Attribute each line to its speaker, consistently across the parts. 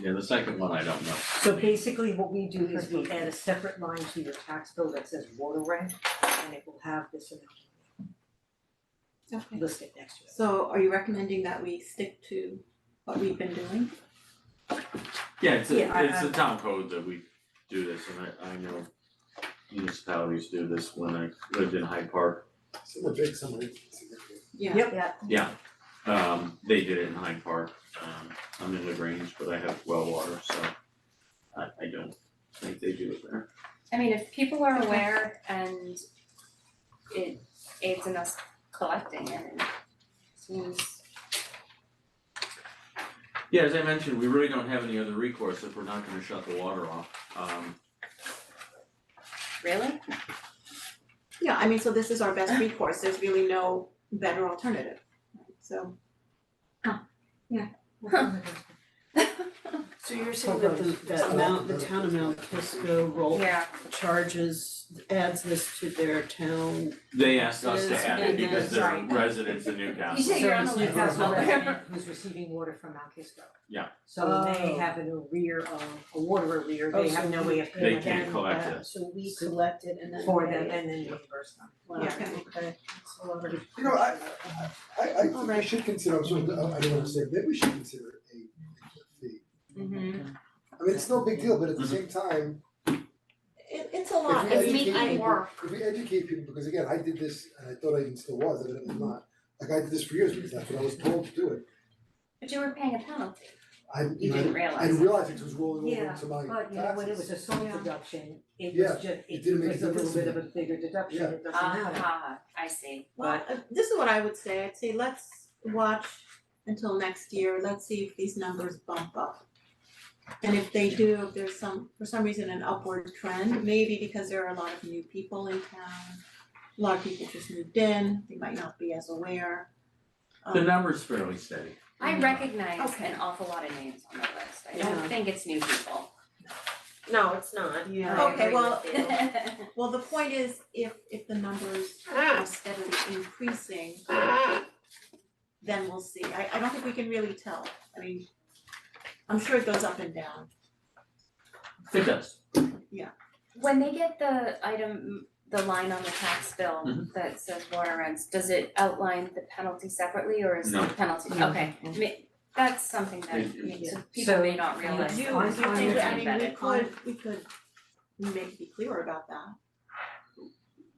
Speaker 1: Yeah, the second one, I don't know.
Speaker 2: So basically, what we do is we add a separate line to your tax bill that says water rent, and it will have this amount
Speaker 3: Okay,
Speaker 2: listed next to it.
Speaker 3: so are you recommending that we stick to what we've been doing?
Speaker 1: Yeah, it's
Speaker 2: Yeah, I-
Speaker 1: a, it's a town code that we do this, and I, I know municipalities do this when I lived in Hyde Park.
Speaker 4: So the big summary.
Speaker 3: Yeah.
Speaker 2: Yep.
Speaker 1: Um, they did it in Hyde Park, um, I'm in Lagrange, but I have well water, so I, I don't think they do it there.
Speaker 5: I mean, if people are
Speaker 3: Okay.
Speaker 5: aware and it aids in us collecting and it seems,
Speaker 1: Yeah, as I mentioned, we really don't have any other recourse if we're not gonna shut the water off, um,
Speaker 5: really?
Speaker 3: Yeah, I mean, so this is our best recourse, there's really no better alternative, so.
Speaker 6: So you're saying that the that amount, the town amount, Kisco roll
Speaker 5: Yeah,
Speaker 6: charges, adds this to their town.
Speaker 1: they asked us to
Speaker 6: Yes,
Speaker 1: add it
Speaker 6: and
Speaker 1: because
Speaker 6: then-
Speaker 1: they're residents in Newcastle.
Speaker 5: You say you're on the
Speaker 2: So
Speaker 5: lookout.
Speaker 2: Newcastle resident who's receiving water from Mount Kisco.
Speaker 1: Yeah.
Speaker 2: So they
Speaker 6: Oh.
Speaker 2: have an arrear of, a water arrear,
Speaker 6: Oh,
Speaker 2: they have
Speaker 6: so
Speaker 2: no
Speaker 6: we-
Speaker 2: way of
Speaker 1: They
Speaker 2: paying
Speaker 1: can't
Speaker 2: them
Speaker 1: collect
Speaker 6: that-
Speaker 1: it.
Speaker 6: So we collect it and then.
Speaker 2: for them
Speaker 6: pay it.
Speaker 2: and then reimburse them.
Speaker 6: Wow,
Speaker 3: Yeah, okay.
Speaker 6: okay. That's a lot of-
Speaker 4: You know, I, I, I, I think we
Speaker 3: Alright.
Speaker 4: should consider, I'm sorry, I I don't wanna say, maybe we should consider it a fee.
Speaker 5: mm-hmm.
Speaker 4: I mean, it's no big deal, but at the same time,
Speaker 3: It it's a
Speaker 4: if
Speaker 3: lot,
Speaker 4: we
Speaker 5: It's
Speaker 3: I mean,
Speaker 4: educate
Speaker 5: making
Speaker 3: I,
Speaker 4: people,
Speaker 5: work.
Speaker 4: if we educate people, because again, I did this, and I thought I even still was, and I'm not. Like I did this for years, because that's what I was told to do it,
Speaker 5: But you were paying a penalty,
Speaker 4: I, you
Speaker 5: you
Speaker 4: know,
Speaker 5: didn't
Speaker 4: I
Speaker 5: realize.
Speaker 4: didn't realize it was rolling over
Speaker 2: Yeah,
Speaker 4: into my
Speaker 2: But you know, when it was a
Speaker 4: taxes.
Speaker 2: sole
Speaker 3: Yeah.
Speaker 2: deduction, it
Speaker 4: Yeah,
Speaker 2: was just,
Speaker 4: didn't
Speaker 2: it
Speaker 4: make
Speaker 2: was
Speaker 4: a
Speaker 2: a little
Speaker 4: difference
Speaker 2: bit
Speaker 4: to
Speaker 2: of a bigger deduction,
Speaker 4: Yeah.
Speaker 2: it doesn't
Speaker 5: Uh-huh.
Speaker 2: matter.
Speaker 5: Aha, Ah, I see.
Speaker 3: well, uh, this is what I would say, I'd say let's watch until next year, let's see if these numbers bump up. And if they do, if there's some, for some reason, an upward trend, maybe because there are a lot of new people in town, a lot of people just moved in, they might not be as aware.
Speaker 1: The
Speaker 3: Um,
Speaker 1: number's fairly steady.
Speaker 5: I
Speaker 1: Mhm.
Speaker 5: recognize
Speaker 3: Okay.
Speaker 5: an awful lot of names on the list. I
Speaker 3: Yeah.
Speaker 5: don't think it's new people.
Speaker 7: No, it's not.
Speaker 6: Yeah.
Speaker 7: I
Speaker 3: Okay,
Speaker 7: agree
Speaker 3: well,
Speaker 7: with you.
Speaker 3: Well, the point is, if if the numbers are steadily increasing, Ah. then we'll see. I I don't think we can really tell. I mean, I'm sure it goes up and down.
Speaker 1: It does.
Speaker 5: When they get the item, the line on the tax bill
Speaker 1: Mhm.
Speaker 5: that says water rents, does it outline the penalty separately or is
Speaker 1: No.
Speaker 5: the penalty,
Speaker 2: No.
Speaker 5: okay. Ma- That's something that
Speaker 1: Thank you.
Speaker 5: may- so
Speaker 2: Yeah.
Speaker 5: people may
Speaker 2: Mm-hmm. So,
Speaker 5: not realize.
Speaker 2: you- On- you on think- your-
Speaker 3: I mean, we
Speaker 5: Better.
Speaker 3: could, we could maybe be clearer about that.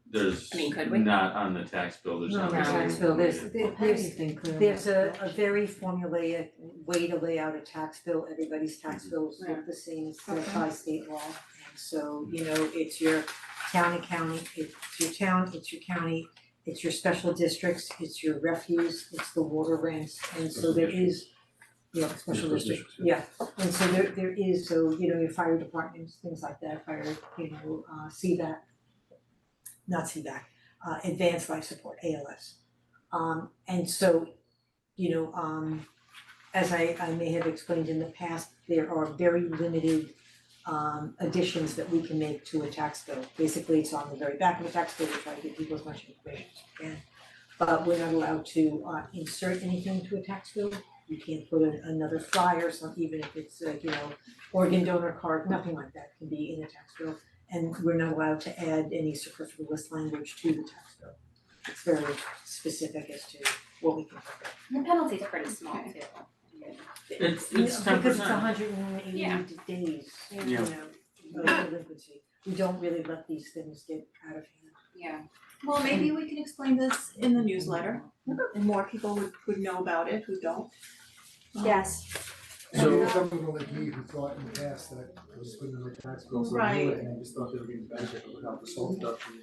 Speaker 1: There's
Speaker 5: I mean, could we?
Speaker 1: not on the tax bill, there's
Speaker 2: No,
Speaker 1: not.
Speaker 2: the tax bill, there's,
Speaker 6: Oh,
Speaker 2: there- there's, there's a, a very formulaic way to lay out a tax bill, everybody's tax bills look the same, it's set by state law. And so, you know, it's your town and county, it's your town, it's your county, it's your special districts, it's your refuse, it's the water rents, and so there is, you know, special districts, yeah. And so there, there is, so, you know, your fire departments, things like that, fire, you know, uh, CVAC, not CVAC, uh, advanced life support, ALS. Um, and so, you know, um, as I, I may have explained in the past, there are very limited um, additions that we can make to a tax bill. Basically, it's on the very back of the tax bill, we try to give people as much information as we can. But we're not allowed to, uh, insert anything to a tax bill. You can't put in another flyer, so even if it's, uh, you know, organ donor card, nothing like that can be in a tax bill. And we're not allowed to add any superfluous language to the tax bill. It's very specific as to what we can cover.
Speaker 5: The penalty's pretty small too.
Speaker 1: It's, it's ten percent.
Speaker 2: Because it's hundred and
Speaker 5: Yeah.
Speaker 2: eighty days, you
Speaker 1: Yeah.
Speaker 2: know, of delinquency. We don't really let these things get out of hand.
Speaker 5: Yeah,
Speaker 3: Well, maybe we can explain this in the newsletter and more people would would know about it who don't.
Speaker 7: Yes.
Speaker 4: And
Speaker 1: So-
Speaker 4: even someone like me who thought in the past that I was putting in my tax bills, so I knew it,
Speaker 3: Right.
Speaker 4: and I just thought they were getting benefit without the sole deduction.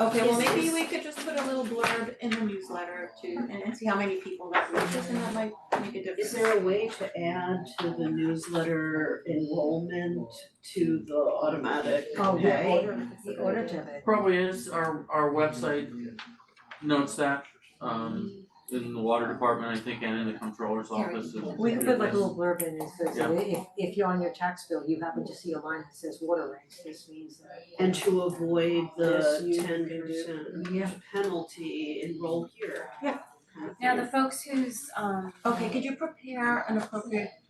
Speaker 3: Um, Okay, well, maybe we could just put a little blurb in the newsletter to and and see how many people that reaches and that might make a difference.
Speaker 6: Is there a way to add to the newsletter enrollment to the automatic pay?
Speaker 2: Oh, yeah, order, the order debit.
Speaker 1: Probably is, our, our website notes that, um, in the water department, I think, and in the controller's office. and-
Speaker 2: We could put like a little blurb in and says,
Speaker 1: Yeah.
Speaker 2: if if you're on your tax bill, you happen to see a line that says water rates, this means that.
Speaker 6: And to avoid
Speaker 2: Yes,
Speaker 6: the
Speaker 2: you can
Speaker 6: ten
Speaker 2: do-
Speaker 6: percent
Speaker 2: Yeah.
Speaker 6: penalty, enroll here.
Speaker 3: Yeah.
Speaker 5: now the folks who's um
Speaker 3: Okay, could you prepare an appropriate